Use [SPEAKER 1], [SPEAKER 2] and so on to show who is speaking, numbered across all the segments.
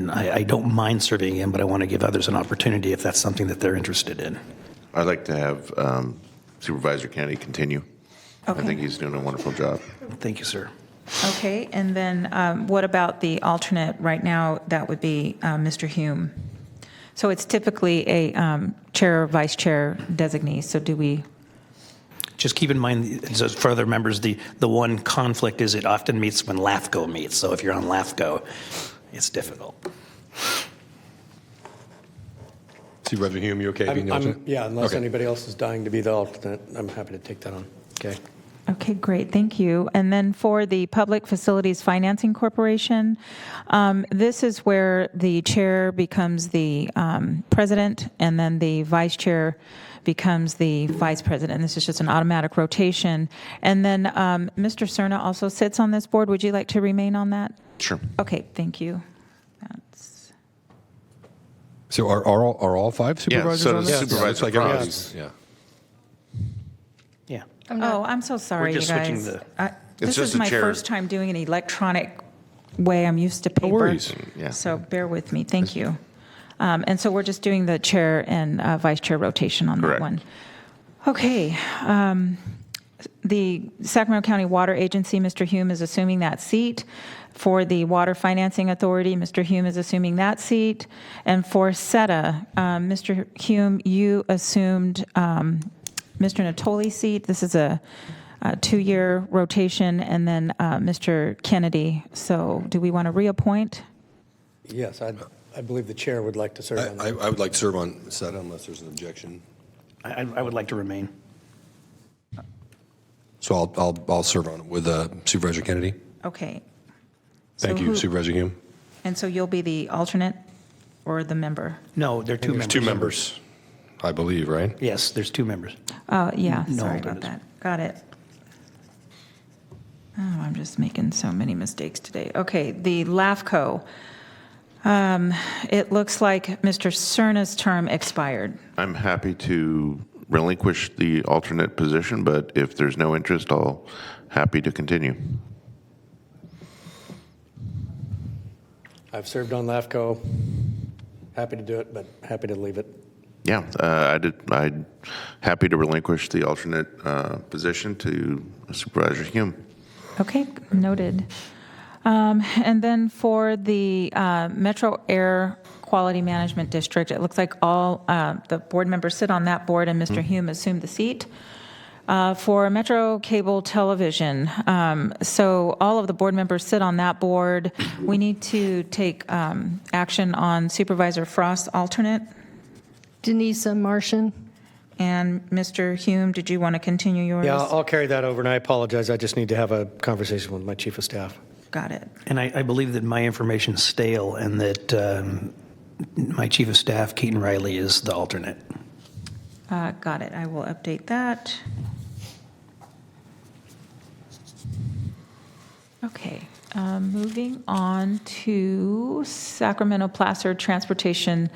[SPEAKER 1] and I, I don't mind serving in, but I want to give others an opportunity if that's something that they're interested in.
[SPEAKER 2] I'd like to have um, Supervisor Kennedy continue. I
[SPEAKER 3] Okay.
[SPEAKER 2] think he's doing a wonderful job.
[SPEAKER 1] Thank you, sir.
[SPEAKER 3] Okay, and then um, what about the alternate? Right now, that would be uh, Mr. Hume. So it's typically a um, chair or vice chair designee, so do we,
[SPEAKER 1] Just keep in mind, so for other members, the, the one conflict is it often meets when LAFCO meets. So if you're on LAFCO, it's difficult.
[SPEAKER 4] Supervisor Hume, you okay
[SPEAKER 5] I'm-
[SPEAKER 4] being the
[SPEAKER 5] I'm-
[SPEAKER 4] alternate?
[SPEAKER 5] Yeah, unless
[SPEAKER 4] Okay.
[SPEAKER 5] anybody else is dying to be the alternate, I'm happy to take that on. Okay.
[SPEAKER 3] okay, great, thank you. And then for the Public Facilities Financing Corporation, um, this is where the chair becomes the um, president, and then the vice chair becomes the vice president. This is just an automatic rotation. And then um, Mr. Cerna also sits on this board. Would you like to remain on that?
[SPEAKER 2] Sure.
[SPEAKER 3] Okay, thank you. That's-
[SPEAKER 4] So are, are, all, are all five supervisors
[SPEAKER 2] so
[SPEAKER 4] on
[SPEAKER 2] does
[SPEAKER 4] this?
[SPEAKER 2] Supervisor
[SPEAKER 4] Looks like
[SPEAKER 2] Frost.
[SPEAKER 4] everybody's- Yeah.
[SPEAKER 1] Yeah.
[SPEAKER 3] Oh, I'm so sorry, you
[SPEAKER 1] just switching
[SPEAKER 3] guys.
[SPEAKER 1] the-
[SPEAKER 3] I- This
[SPEAKER 2] just
[SPEAKER 3] is
[SPEAKER 2] a
[SPEAKER 3] my
[SPEAKER 2] chair.
[SPEAKER 3] first time doing an electronic way. I'm used to paper.
[SPEAKER 4] worries.
[SPEAKER 2] Yeah.
[SPEAKER 3] So bear with me, thank you. Um, And so we're just doing the chair and uh, vice chair rotation on that
[SPEAKER 2] Correct.
[SPEAKER 3] one. Okay. um, The Sacramento County Water Agency, Mr. Hume is assuming that seat. For the Water Financing Authority, Mr. Hume is assuming that seat. And for SETA, um, Mr. Hume, you assumed um, Mr. Natoli's seat. This is a uh, two-year rotation, and then uh, Mr. Kennedy. So do we want to reappoint?
[SPEAKER 5] Yes, I, I believe the chair would like to serve on
[SPEAKER 4] I,
[SPEAKER 5] that.
[SPEAKER 4] I would like to serve on SETA unless there's an objection.
[SPEAKER 1] I, I- I would like to remain.
[SPEAKER 4] So I'll, I'll, I'll serve on it with uh, Supervisor Kennedy.
[SPEAKER 3] Okay.
[SPEAKER 4] Thank
[SPEAKER 3] So
[SPEAKER 4] you,
[SPEAKER 3] who-
[SPEAKER 4] Supervisor Hume.
[SPEAKER 3] And so you'll be the alternate or the member?
[SPEAKER 1] No, there are two members.
[SPEAKER 4] There's two members, I believe, right?
[SPEAKER 1] Yes, there's two members.
[SPEAKER 3] Oh, yeah,
[SPEAKER 1] No
[SPEAKER 3] sorry about
[SPEAKER 1] alternates.
[SPEAKER 3] that. Got it. Oh, I'm just making so many mistakes today. Okay, the LAFCO. Um, It looks like Mr. Cerna's term expired.
[SPEAKER 2] I'm happy to relinquish the alternate position, but if there's no interest, I'll happy to continue.
[SPEAKER 5] I've served on LAFCO, happy to do it, but happy to leave it.
[SPEAKER 2] Yeah, uh, I did, I'd happy to relinquish the alternate uh, position to Supervisor Hume.
[SPEAKER 3] Okay, noted. Um, And then for the uh, Metro Air Quality Management District, it looks like all uh, the board members sit on that board, and
[SPEAKER 5] Mm-hmm.
[SPEAKER 3] Mr. Hume assumed the seat. Uh, For Metro Cable Television, um, so all of the board members sit on that board. We need to take um, action on Supervisor Frost's alternate.
[SPEAKER 6] Denise Martian.
[SPEAKER 3] And Mr. Hume, did you want to continue yours?
[SPEAKER 5] Yeah, I'll carry that over, and I apologize, I just need to have a conversation with my chief of staff.
[SPEAKER 3] Got it.
[SPEAKER 1] And I, I believe that my information is stale and that um, my chief of staff, Keaton Riley, is the alternate.
[SPEAKER 3] Uh, Got it. I will update that. Okay, um, moving on to Sacramento Placer Transportation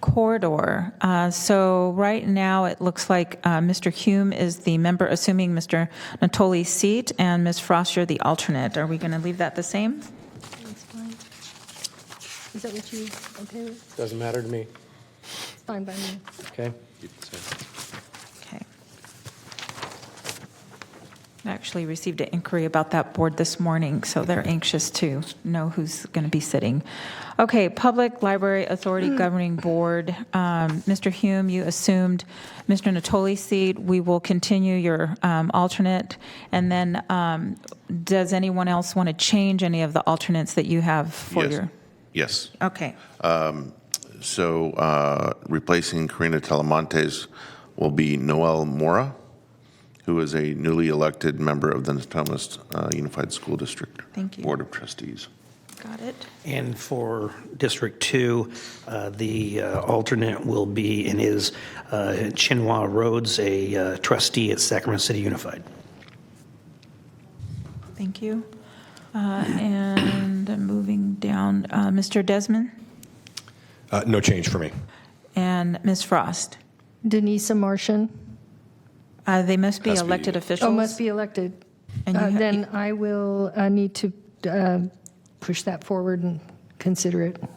[SPEAKER 3] Corridor. Uh, So right now, it looks like uh, Mr. Hume is the member assuming Mr. Natoli's seat, and Ms. Frost, you're the alternate. Are we going to leave that the same?
[SPEAKER 6] That's fine. Is that what you, okay with?
[SPEAKER 5] Doesn't matter to me,
[SPEAKER 6] It's fine by me.
[SPEAKER 5] okay?
[SPEAKER 3] Okay. I actually received an inquiry about that board this morning, so they're anxious to know who's going to be sitting. Okay, Public Library Authority Governing Board, um, Mr. Hume, you assumed Mr. Natoli's seat. We will continue your um, alternate. And then, um, does anyone else want to change any of the alternates that you have for
[SPEAKER 2] Yes.
[SPEAKER 3] your?
[SPEAKER 2] Yes.
[SPEAKER 3] Okay,
[SPEAKER 2] So uh, replacing Karina Telemontes will be Noel Mora, who is a newly elected member of the Natomas uh, Unified School District
[SPEAKER 3] Thank you.
[SPEAKER 2] Board of Trustees.
[SPEAKER 3] got it.
[SPEAKER 1] And for District 2, uh, the uh, alternate will be and is uh, Chinua Rhodes, a uh, trustee at Sacramento City Unified.
[SPEAKER 3] Thank you. Uh, And moving down, uh, Mr. Desmond
[SPEAKER 4] Uh, no change for me.
[SPEAKER 3] and Ms. Frost.
[SPEAKER 6] Denise Martian.
[SPEAKER 3] Uh, They must be
[SPEAKER 4] Has to be-
[SPEAKER 3] elected officials.
[SPEAKER 6] Oh, must be elected.
[SPEAKER 3] And you
[SPEAKER 6] Uh,
[SPEAKER 3] ha-
[SPEAKER 6] Then I will uh, need to uh, push that forward and consider it.